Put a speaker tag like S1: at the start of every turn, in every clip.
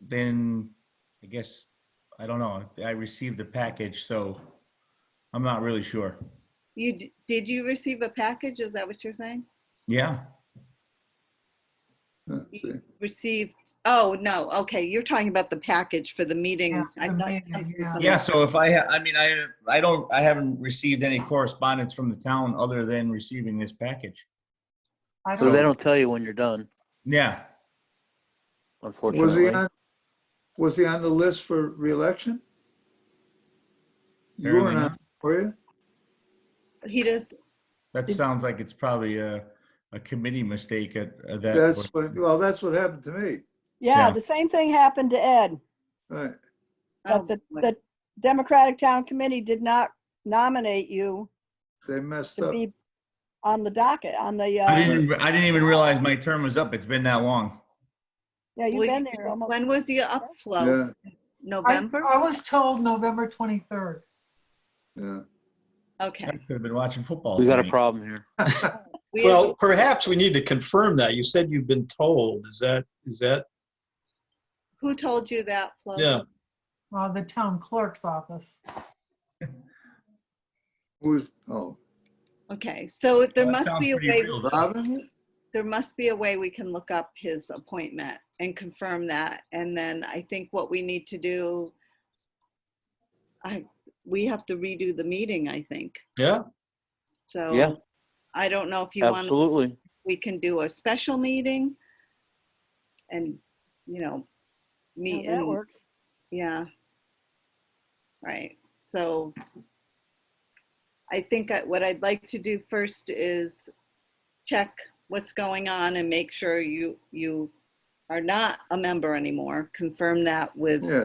S1: then I guess, I don't know. I received the package, so I'm not really sure.
S2: You, d- did you receive a package? Is that what you're saying?
S1: Yeah,
S3: Let's see.
S2: Received, oh, no, okay, you're talking about the package for the meeting.
S4: Yeah,
S2: I
S4: the
S2: thought-
S4: meeting, yeah.
S1: yeah, so if I, ha- I mean, I, I don't, I haven't received any correspondence from the town other than receiving this package.
S4: I
S5: So they
S4: don't,
S5: don't tell you when you're done,
S1: Yeah,
S3: Was he
S5: unfortunately.
S3: on, was he on the list for reelection? You
S1: Apparently
S3: weren't on,
S1: not.
S3: were you?
S2: He does,
S1: that sounds like it's probably a, a committee mistake at at that.
S3: That's, what. well, that's what happened to me.
S6: Yeah,
S1: Yeah.
S6: the same thing happened to Ed,
S3: Right.
S2: oh,
S6: but the,
S2: boy.
S6: the Democratic Town Committee did not nominate you
S3: They messed
S6: to
S3: up.
S6: be on the docket, on the,
S1: I
S6: uh,
S1: didn't, I didn't even realize my term was up. It's been that long.
S6: yeah, you've
S2: Well,
S6: been
S2: you-
S6: there almost.
S2: When was the upflow?
S3: Yeah,
S4: I,
S2: November?
S4: I was told November 23rd.
S3: yeah.
S1: I
S2: Okay.
S1: could have been watching football.
S5: We got a
S1: tonight.
S5: problem here.
S2: We-
S7: Well, perhaps we need to confirm that. You said you've been told. Is that, is that,
S2: Who told you that, Flo?
S7: yeah.
S4: Uh, the town clerk's office.
S3: Who's, oh,
S2: Okay, so there
S1: That
S2: must
S1: sounds
S2: be a
S1: pretty
S2: way,
S1: real.
S3: Robin?
S2: there must be a way we can look up his appointment and confirm that. And then I think what we need to do, I, we have to redo the meeting, I think.
S7: Yeah.
S2: So.
S5: Yeah.
S2: I don't know if you want, to
S5: Absolutely.
S2: we can do a special meeting and, you know, meet
S6: Yeah, That
S2: and,
S6: works.
S2: yeah. Right, so I think I- what I'd like to do first is check what's going on and make sure you, you are not a member anymore. Confirm that with.
S3: Yeah.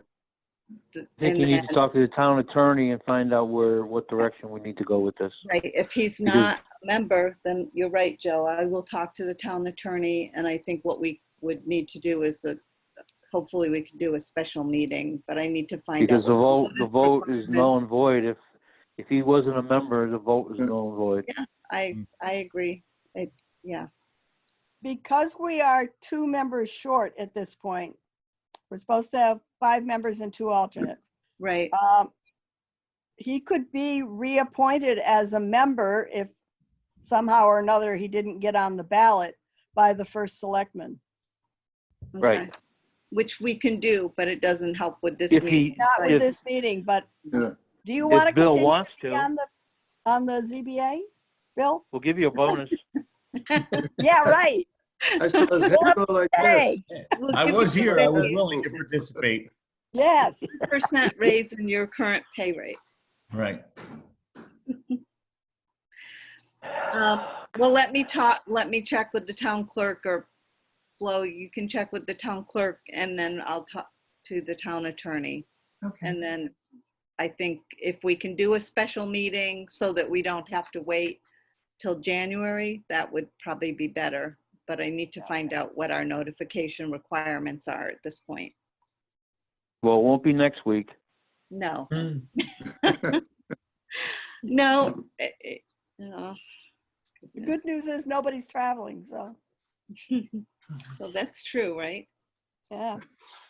S2: th-
S5: I think
S2: and
S5: you need to
S2: then-
S5: talk to the town attorney and find out where, what direction we need to go with this.
S2: Right, if he's
S5: Because-
S2: not a member, then you're right, Joe. I will talk to the town attorney, and I think what we would need to do is that, hopefully we can do a special meeting, but I need to find out.
S5: Because the vote,
S2: what
S5: the vote is null and void. If, if he wasn't a member, the vote is
S3: Yeah.
S5: null and void.
S2: I,
S5: Mm.
S2: I agree. It, yeah,
S6: Because we are two members short at this point, we're supposed to have five members and two alternates.
S2: right.
S6: Um, He could be reappointed as a member if somehow or another he didn't get on the ballot by the first selectman.
S5: Right.
S2: okay. Which we can do, but it doesn't help with this
S5: If
S2: meeting.
S5: he-
S6: Not
S2: so
S6: with
S5: If-
S6: this meeting, but
S3: Yeah.
S6: do you want to
S5: If Bill
S6: continue to
S5: wants
S6: be
S5: to,
S6: on the, on the ZBA? Bill?
S5: we'll give you a bonus.
S6: Yeah, right.
S3: I saw his head go like this.
S6: Hey,
S2: we'll
S1: I
S2: give
S1: was
S2: you
S1: here. I was
S3: fifty.
S1: willing to participate.
S6: yes.
S2: a Percent raise in your current pay rate.
S1: Right.
S2: Um, Well, let me talk, let me check with the town clerk or Flo, you can check with the town clerk and then I'll talk to the town attorney.
S4: Okay,
S2: And then I think if we can do a special meeting so that we don't have to wait till January, that would probably be better. But I need to find out what our notification requirements are at this point.
S5: Well, it won't be next week.
S2: No,
S7: Hmm.
S2: no. eh, eh, no.
S6: The good news is nobody's traveling, so,
S2: So that's true, right?
S6: yeah.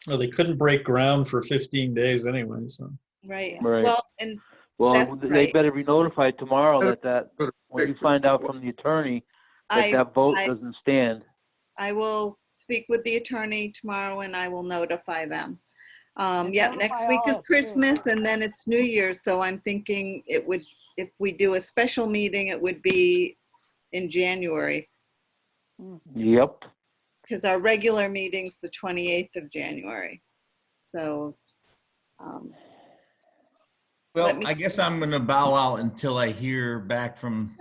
S7: Well, they couldn't break ground for 15 days anyway, so.
S2: Right.
S5: Right.
S2: Well, and
S5: Well,
S2: That's
S5: they
S2: right.
S5: better be notified tomorrow that that,
S3: Better-
S5: when you find out from the attorney, that
S2: I.
S5: that vote
S2: I-
S5: doesn't stand.
S2: I will speak with the attorney tomorrow and I will notify them. Um,
S6: And
S2: yeah,
S6: notify
S2: next week
S6: all
S2: is
S6: of you.
S2: Christmas and then it's New Year's, so I'm thinking it would, if we do a special meeting, it would be in January,
S5: Yep.
S2: because our regular meeting's the 28th of January. So, um,
S1: Well,
S2: Let me-
S1: I guess I'm gonna bow out until I hear back from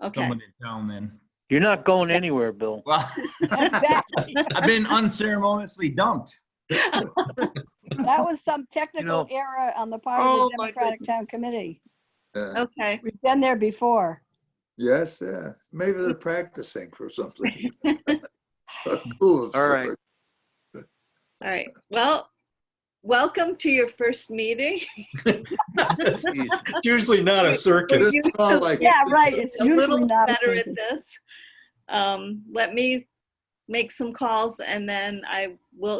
S2: okay,
S1: someone in town then.
S5: You're not going anywhere, Bill.
S1: Well,
S6: Exactly.
S1: I've been unceremoniously dumped.
S6: That was some technical error on the part of
S2: Oh,
S6: the
S2: my
S6: Democratic Town Committee.
S3: Yeah.
S2: okay.
S6: We've been there before.
S3: Yes, yeah. Maybe they're practicing for something. A Cool. of
S5: All right.
S3: sort.
S2: All right. Well, welcome to your first meeting.
S7: It's
S5: Jeez.
S7: usually not a
S3: But
S7: circus.
S3: it's all like-
S6: Yeah, right. It's
S2: a
S6: usually
S2: little
S6: not. a
S2: better at
S6: secret.
S2: this. Um, let me make some calls and then I will